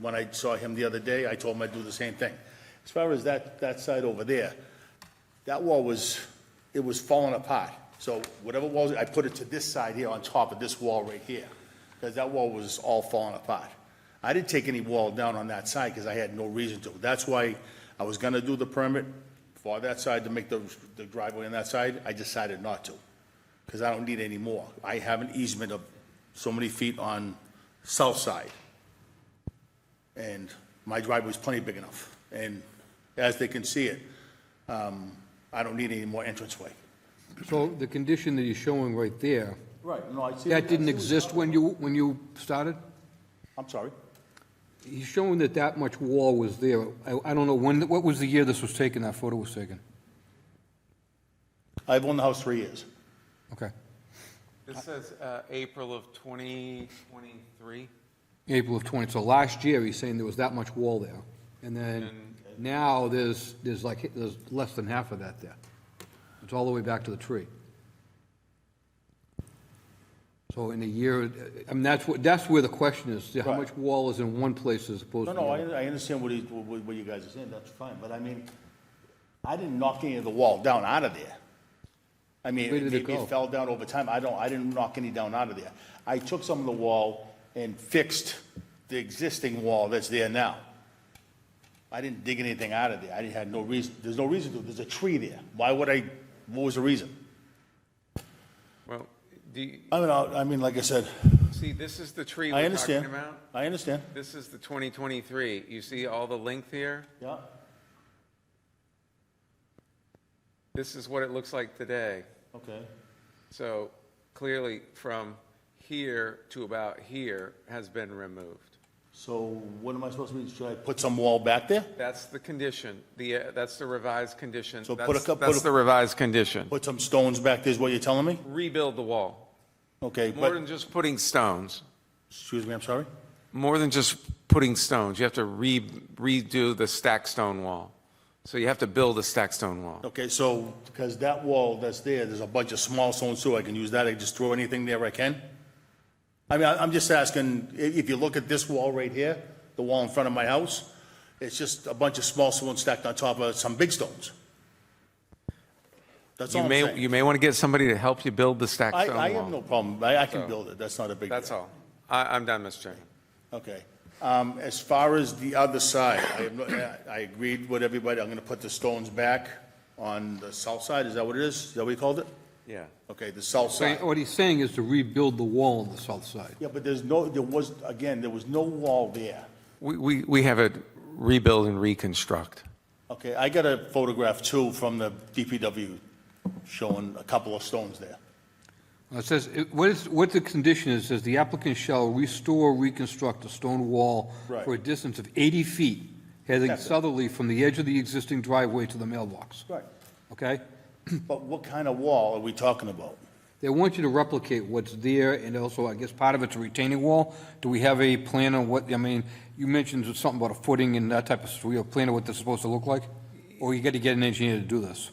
When I saw him the other day, I told him I'd do the same thing. As far as that, that side over there, that wall was, it was falling apart. So whatever walls, I put it to this side here on top of this wall right here, because that wall was all falling apart. I didn't take any wall down on that side because I had no reason to. That's why I was gonna do the permit for that side to make the, the driveway on that side. I decided not to, because I don't need any more. I have an easement of so many feet on south side and my driveway's plenty big enough. And as they can see it, um, I don't need any more entranceway. So the condition that he's showing right there, Right, no, I see. that didn't exist when you, when you started? I'm sorry. He's showing that that much wall was there. I, I don't know when, what was the year this was taken, that photo was taken? I've owned the house three years. Okay. This says uh, April of 2023. April of 20, so last year, he's saying there was that much wall there. And then now, there's, there's like, there's less than half of that there. It's all the way back to the tree. So in a year, I mean, that's what, that's where the question is, how Right. much wall is in one place as opposed No, to the no, I, other? I understand what he, what what you guys are saying, that's fine, but I mean, I didn't knock any of the wall down out of there. I mean, Where did it maybe go? it fell down over time, I don't, I didn't knock any down out of there. I took some of the wall and fixed the existing wall that's there now. I didn't dig anything out of there, I didn't- had no reason, there's no reason to, there's a tree there, why would I, what was the reason? Well, do you, I mean, I, I mean, like I said, see, this is the tree I we're talking understand, about. I understand, This is the 2023. You see all the length here? yeah, This is what it looks like today. okay, So clearly, from here to about here has been removed. so what am I supposed to do, should I put some wall back there? That's the condition, the, uh, that's the revised condition. So put a That's- cou- put That's a- the revised condition. Put some stones back there is what you're telling me? Rebuild the wall. Okay, More but, than just putting stones. excuse me, I'm sorry? more than just putting stones. You have to re- redo the stack stone wall. So you have to build a stack stone wall. Okay, so, because that wall that's there, there's a bunch of small stones too, I can use that, I just throw anything there I can? I mean, I- I'm just asking, i- if you look at this wall right here, the wall in front of my house, it's just a bunch of small stones stacked on top of some big stones. That's all You I'm may, saying. you may want to get somebody to help you build the stack I, stone wall. I have no problem, I, I can build it, that's not a big deal. That's all. I, I'm done, Mr. Chairman. Okay. Um, As far as the other side, I have no- I agreed with everybody, I'm going to put the stones back on the south side, is that what it is? Is that what you called it? Yeah. Okay, the south So side. What he's saying is to rebuild the wall on the south side. Yeah, but there's no, there was, again, there was no wall there. We, we, we have it rebuild and reconstruct. Okay, I got a photograph too from the DPW showing a couple of stones there. It says, it- what is, what the condition is, says the applicant shall restore, reconstruct a stone wall Right. for a distance of 80 feet heading That's it. southerly from the edge of the existing driveway to the mailbox, Right. okay? But what kind of wall are we talking about? They want you to replicate what's there, and also, I guess, part of it's a retaining wall. Do we have a plan on what, I mean, you mentioned something about a footing and that type of, stuff. we have a plan of what this is supposed to look like? Or you got to get an engineer to do this?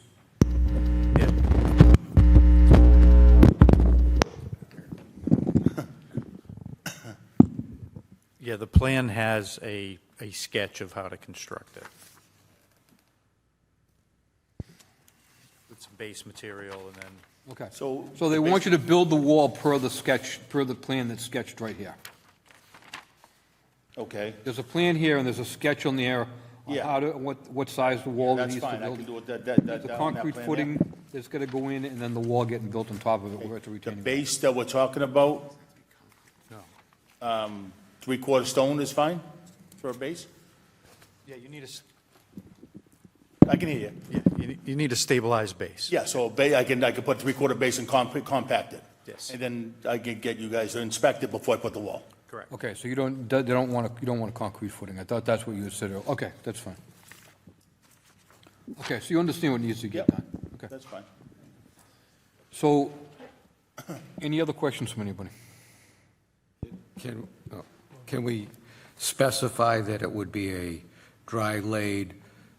Yeah, the plan has a, a sketch of how to construct it. With some base material and then, Okay. So- So they want you to build the wall per the sketch, per the plan that's sketched right here. Okay, There's a plan here, and there's a sketch on there on Yeah. how to, what, what size the wall that's needs to build. fine, I can do it, that, that, that. There's a that on that concrete plan there. footing that's gonna go in, and then the wall getting built on top of it, where it's a The retaining wall. base that we're talking about, no. three-quarter stone is fine for a base? Yeah, you need a, I can hear you. you, you need a stabilized base. Yeah, so ba, I can, I can put three-quarter base and comp, compact it. Yes. And then I can get you guys to inspect it before I put the wall. Correct. Okay, so you don't, they don't want, a- you don't want a concrete footing, I thought that's what you had said, earlier. okay, that's fine. Okay, so you understand what needs to get Yep. done, okay. That's fine. So, any other questions from anybody? Can, oh, can we specify that it would be a dry laid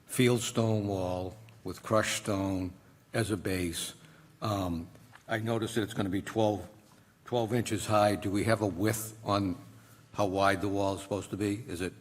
field stone wall with crushed stone as a base? Um, I noticed that it's going to be 12, 12 inches high. Do we have a width on how wide the wall is supposed to be? Is it